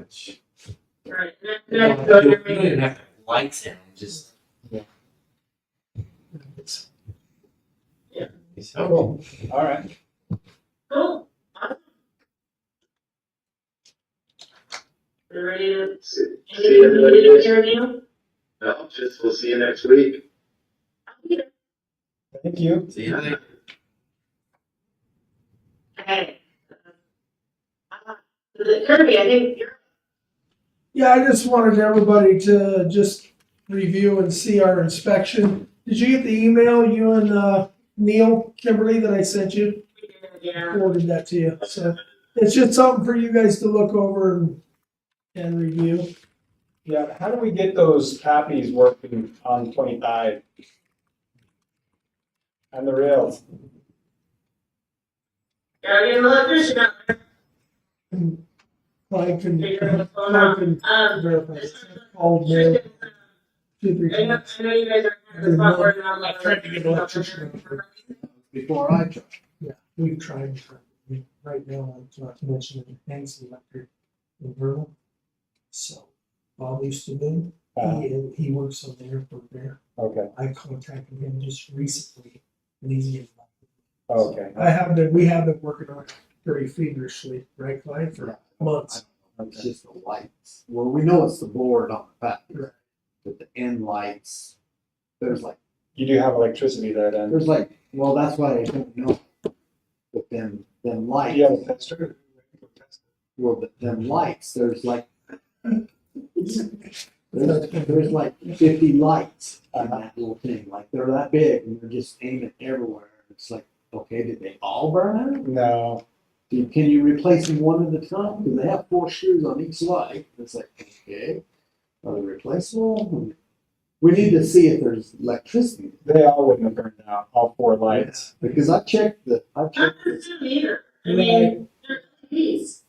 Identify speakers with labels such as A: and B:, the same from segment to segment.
A: much.
B: Right.
A: You don't have to, you don't even have to have lights in. Just
C: Yeah.
A: It's-
B: Yeah.
A: It's helpful.
C: Cool. All right.
B: Cool. We ready to
D: See, see
B: interview?
D: everybody.
B: Ready to
D: next-
B: interview?
D: No, just we'll see you next week.
C: Thank you.
A: See you later.
B: Okay. Uh, Kirby, I think you're
E: Yeah, I just wanted everybody to just review and see our inspection. Did you get the email, you and uh, Neil Kimberly, that I sent you?
B: yeah.
E: Forwarded that to you. So it's just something for you guys to look over and, and review.
C: Yeah, how do we get those copies working on twenty-five? On the rails?
B: You're getting a little efficient out there.
E: Clyde
B: Figure out
E: can,
B: what's going
E: Clyde
B: on.
E: can
B: Um,
E: verify.
B: just-
E: Called Neil two, three
B: I know,
E: times.
B: I know you guys are kind of the spot where I'm like.
E: I tried to get an electrician.
F: before I joined.
E: Yeah, we've tried for, we- right now, I'm not to mention the things electric in Vernal. So Bob used to do,
C: Uh,
E: he, he works on the airport there.
C: okay,
E: I contacted him just recently and he's getting. back.
C: okay.
E: I have been, we have been working on it pretty feverishly, right, Clyde, for months.
F: It's just the lights. Well, we know it's the board on the back,
E: Right.
F: but the end lights, there's like,
C: You do have electricity there then?
F: there's like, well, that's why I don't know. But then, then lights,
C: You have a tester?
F: well, but then lights, there's like, there's, there's like fifty lights on that little thing, like they're that big and they're just aiming everywhere. It's like, okay, did they all burn out?
C: No,
F: Can- Can you replace them one at a time? Because they have four screws on each light. It's like, okay, are they replaceable? We need to see if there's electricity,
C: they all wouldn't have burned out, all four lights.
F: because I checked the, I
B: Not
F: checked
B: the
F: this,
B: Zoom either. I mean, they're LEDs.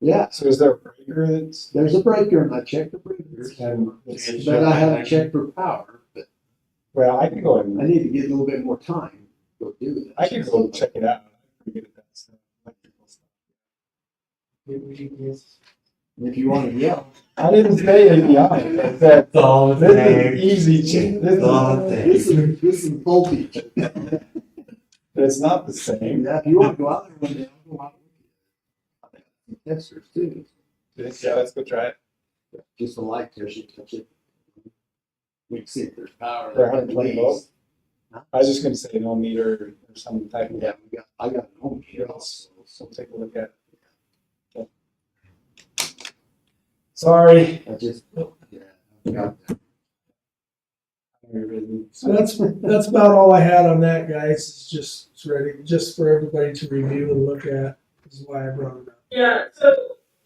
F: yeah,
C: So is there a breaker that's?
F: there's a breaker and I checked the breakers.
C: and it's-
F: But I haven't checked for power, but
C: Well, I can go and,
F: I need to get a little bit more time to do that.
C: I can go check it out. I'm pretty good at that stuff, electrical stuff.
F: If you wanna yell.
C: I didn't say it, yeah, I said,
A: All
C: this is easy, ch- this is,
A: Dog thing.
F: This is, this is voltage. Yeah,
C: it's not the same.
F: If you wanna go out there one day, I'll go out. with you. Testers too.
C: Yeah, let's go try it.
F: just a light touch it, touch it. We can see if there's power.
C: For 120
F: Please.
C: volts? I was just gonna say no meter or some type of,
F: Yeah, we got, I got an ohm here
C: Yes.
F: also.
C: so take a look at it. Sorry.
F: I just,
E: Nope.
F: yeah. I forgot that.
E: So that's, that's about all I had on that, guys, it's just, it's ready, just for everybody to review and look at, is why I brought it up.
B: Yeah, so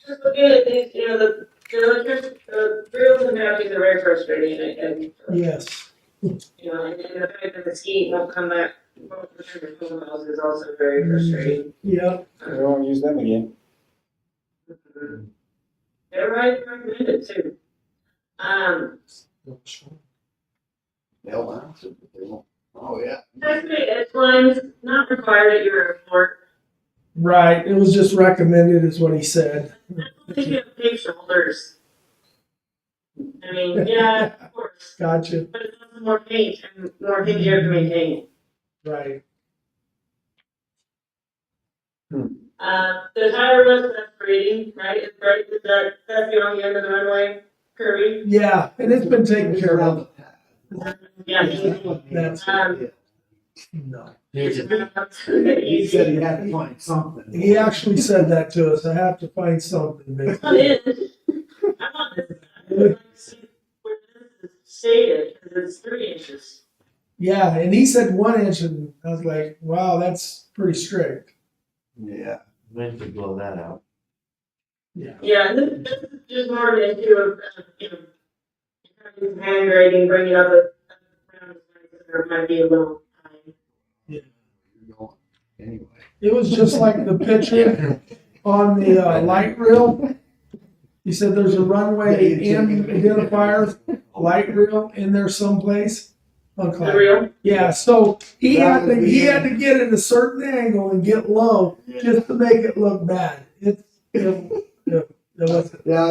B: just looking at these, you know, the, the electric, the grills and matches are very frustrating and, and,
E: Yes.
B: you know, and the fact that the ski won't come back, won't return to full house is also very frustrating.
E: Yep,
C: We won't use them again.
B: Everybody recommended too. Um,
F: They'll answer, but they won't. Oh, yeah.
B: definitely, it's one's not required at your airport.
E: right, it was just recommended is what he said.
B: I don't think you have big shoulders. I mean, yeah, of course,
E: Gotcha,
B: but it's also more paint and more things you have to maintain.
E: right.
C: Hmm.
B: Uh, the tire was that's braiding, right? It's right, is that, that's the only end of the runway, curvy.
E: Yeah, and it's been taken care of.
B: Yeah.
E: That's-
B: Um,
E: No.
A: Here's a-
F: He
B: It's
F: said he had to find something.
E: He actually said that to us, I have to find something,
B: not
E: basically.
B: in. I want this, I would like to see where this is shaded, because it's three inches.
E: Yeah, and he said one inch, and I was like, wow, that's pretty strict.
F: Yeah.
A: When to blow that out.
B: Yeah, and this, this is just more of an issue of, of, you know, having some hand grading, bringing up a, around the sides, there might be a little time.
F: You're going. Anyway.
E: It was just like the picture on the uh, light reel. He said there's a runway in identifier, light reel in there someplace. on
B: The
E: Clyde.
B: real,
E: Yeah, so he had to,
F: That would be
E: he
F: it.
E: had to get at a certain angle and get low just to make it look bad. It's, it, it, it was
F: Yeah,